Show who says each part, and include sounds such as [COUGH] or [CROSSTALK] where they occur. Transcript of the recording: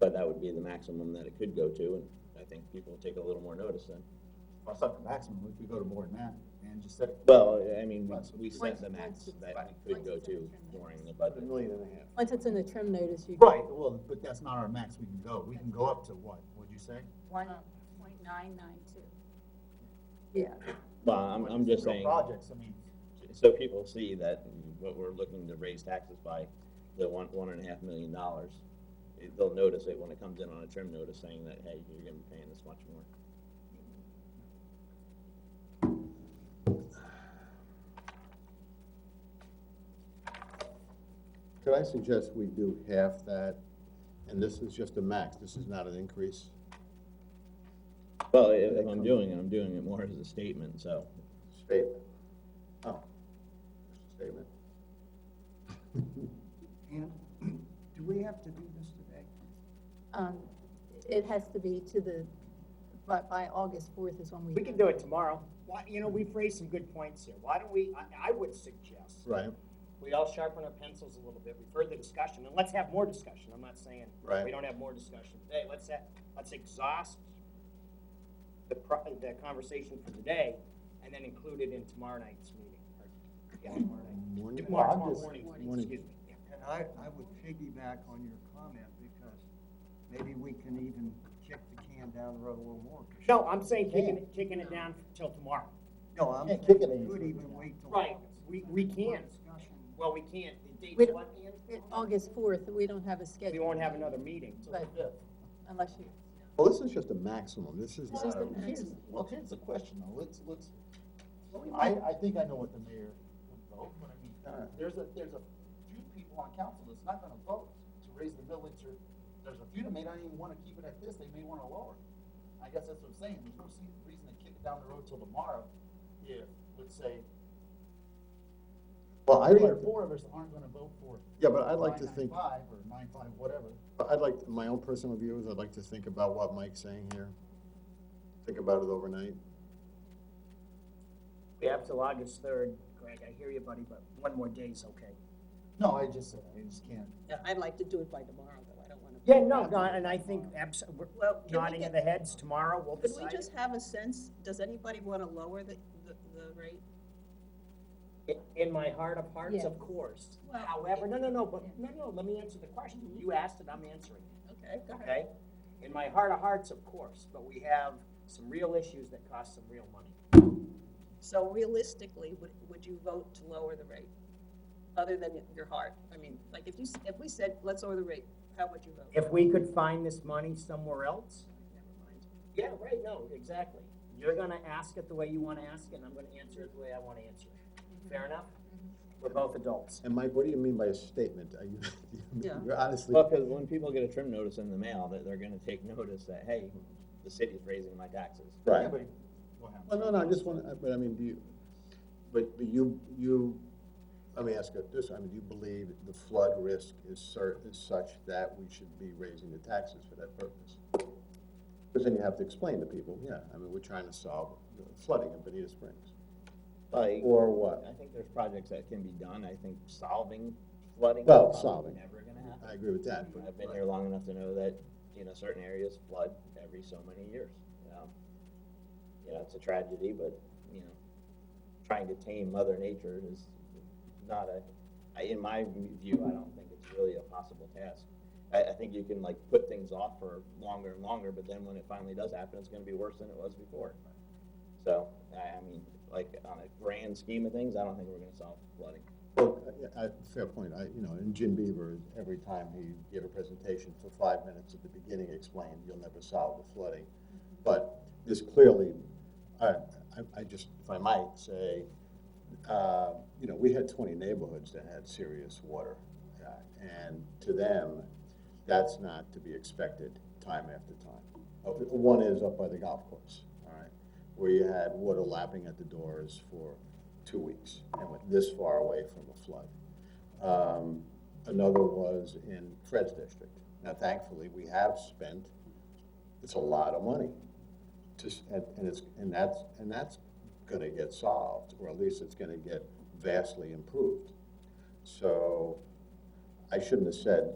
Speaker 1: But that would be the maximum that it could go to, and I think people will take a little more notice then.
Speaker 2: Well, it's not the maximum, if we go to more than that, and just set it.
Speaker 1: Well, I mean, we- we set
Speaker 3: Once-
Speaker 1: the max
Speaker 3: once-
Speaker 1: that
Speaker 3: right,
Speaker 1: it could
Speaker 3: once
Speaker 1: go
Speaker 3: it's in
Speaker 1: to
Speaker 3: the term
Speaker 1: during
Speaker 3: notice.
Speaker 1: the budget.
Speaker 2: million and a half.
Speaker 4: Once it's in the trim notice, you.
Speaker 2: Right, well, but that's not our max we can go, we can go up to what, would you say?
Speaker 3: One point nine nine two.
Speaker 4: Yeah,
Speaker 1: Well, I'm, I'm just
Speaker 2: Real
Speaker 1: saying,
Speaker 2: Projects, I mean,
Speaker 1: so people see that what we're looking to raise taxes by, the one, one and a half million dollars, it- they'll notice it when it comes in on a trim notice saying that, hey, you're gonna be paying this much more.
Speaker 5: Could I suggest we do half that, and this is just a max, this is not an increase?
Speaker 1: Well, i- if I'm doing it, I'm doing it more as a statement, so.
Speaker 5: Statement. Oh, just
Speaker 6: [LAUGHS]
Speaker 5: a statement.
Speaker 7: And do we have to do this today?
Speaker 4: um, it has to be to the, by, by August fourth is when we.
Speaker 7: We can do it tomorrow. Why, you know, we've raised some good points here. Why don't we, I, I would suggest
Speaker 5: Right,
Speaker 7: we all sharpen our pencils a little bit, we further discussion, and let's have more discussion. I'm not saying
Speaker 5: Right.
Speaker 7: we don't have more discussion today. Let's have, let's exhaust the pro, the conversation for today and then include it in tomorrow night's meeting. or, Yeah, tomorrow night.
Speaker 5: Morning.
Speaker 7: Tomorrow,
Speaker 5: Well, I'm
Speaker 7: tomorrow
Speaker 5: just-
Speaker 7: morning,
Speaker 5: morning.
Speaker 7: excuse me. Yeah.
Speaker 6: And I, I would piggyback on your comment because maybe we can even kick the can down the road a little more.
Speaker 7: No, I'm saying kicking, it- kicking it down till tomorrow.
Speaker 6: No, I'm
Speaker 2: Yeah,
Speaker 6: saying
Speaker 2: kick it
Speaker 6: you
Speaker 2: in.
Speaker 6: could even wait till
Speaker 7: Right.
Speaker 6: August.
Speaker 7: We- we
Speaker 6: More
Speaker 7: can.
Speaker 6: Discussion.
Speaker 7: Well, we can't.
Speaker 4: We
Speaker 7: The date's
Speaker 4: don't-
Speaker 7: what, Ian?
Speaker 4: it- August fourth, we don't have a
Speaker 7: We
Speaker 4: schedule,
Speaker 7: won't have another meeting.
Speaker 4: but unless you,
Speaker 5: Well, Oh, this is just a maximum, this is
Speaker 4: This
Speaker 5: not
Speaker 4: is
Speaker 5: a.
Speaker 4: the-
Speaker 2: here's, well, here's the question, though, let's, let's, I, I think I know what the mayor would vote, but I mean, there's a, there's a few people on council that's not gonna vote to raise the millage, or, there's a few that may not even wanna keep it at this, they may wanna lower it. I guess that's what I'm saying, there's no se- reason to kick it down the road till tomorrow, if, let's say,
Speaker 5: Well, I'd
Speaker 2: three or
Speaker 5: like, to-
Speaker 2: four of us aren't gonna vote for.
Speaker 5: yeah, but I'd like to
Speaker 2: 9.95
Speaker 5: think,
Speaker 2: or nine-five, whatever.
Speaker 5: I'd like, my own personal view is I'd like to think about what Mike's saying here. Think about it overnight.
Speaker 7: We have till August third, Greg, I hear you, buddy, but one more day's okay.
Speaker 2: No, I just, I just can't.
Speaker 8: I'd like to do it by tomorrow, though, I don't wanna.
Speaker 7: Yeah, no, no, and I think abs- we're
Speaker 8: Well, can we
Speaker 7: nodding of
Speaker 8: get-
Speaker 7: the heads tomorrow, we'll
Speaker 8: Could we
Speaker 7: decide.
Speaker 8: just have a sense, does anybody wanna lower the, the, the rate?
Speaker 7: I- In my heart of hearts, of
Speaker 4: Yes.
Speaker 7: course.
Speaker 8: Well,
Speaker 7: However, no, no, no, but,
Speaker 8: yeah.
Speaker 7: no, no, let me answer the question. You asked it, I'm answering it,
Speaker 8: Okay, go ahead.
Speaker 7: okay? In my heart of hearts, of course, but we have some real issues that cost some real money.
Speaker 8: So realistically, would, would you vote to lower the rate? Other than your heart, I mean, like, if you, s- if we said, let's lower the rate, how would you vote?
Speaker 7: If we could find this money somewhere else,
Speaker 8: Never mind.
Speaker 7: yeah, right, no, exactly. You're gonna ask it the way you wanna ask it, and I'm gonna answer it the way I wanna answer
Speaker 8: Mm-hmm.
Speaker 7: it. Fair enough? We're both adults.
Speaker 5: And Mike, what do you mean by a statement? Are you, [LAUGHS]
Speaker 8: Yeah.
Speaker 5: you're honestly,
Speaker 1: Well, because when people get a trim notice in the mail, that they're gonna take notice that, hey, the city's raising my taxes.
Speaker 5: right?
Speaker 2: Yeah, but we'll have-
Speaker 5: Well, no, no, I just want to, but I mean, do you, but but you, you, let me ask you this, I mean, do you believe the flood risk is cer, is such that we should be raising the taxes for that purpose? Because then you have to explain to people, yeah, I mean, we're trying to solve flooding in Bonita Springs,
Speaker 1: Like,
Speaker 5: or what?
Speaker 1: I think there's projects that can be done, I think solving flooding. is
Speaker 5: Well,
Speaker 1: probably
Speaker 5: solving.
Speaker 1: Never gonna happen.
Speaker 5: I agree with that, but.
Speaker 1: I've been here long enough to know that, you know, certain areas flood every so many years, you know? You know, it's a tragedy, but, you know, trying to tame mother nature is not a, I- in my view, I don't think it's really a possible task. I, I think you can like put things off for longer and longer, but then when it finally does happen, it's gonna be worse than it was before. So, I, I mean, like, on a grand scheme of things, I don't think we're gonna solve flooding.
Speaker 5: Well, I, I- fair point, I, you know, and Jim Beaver, every time he gave a presentation for five minutes at the beginning, explained, you'll never solve the flooding. But this clearly, I, I, I just, if I might say, uh, you know, we had twenty neighborhoods that had serious water. uh, And to them, that's not to be expected time after time. Uh, One is up by the golf course, all right, where you had water lapping at the doors for two weeks and went this far away from a flood. Um, Another was in Fred's district. Now thankfully, we have spent, it's a lot of money. Just, and, and it's, and that's, and that's gonna get solved, or at least it's gonna get vastly improved. So I shouldn't have said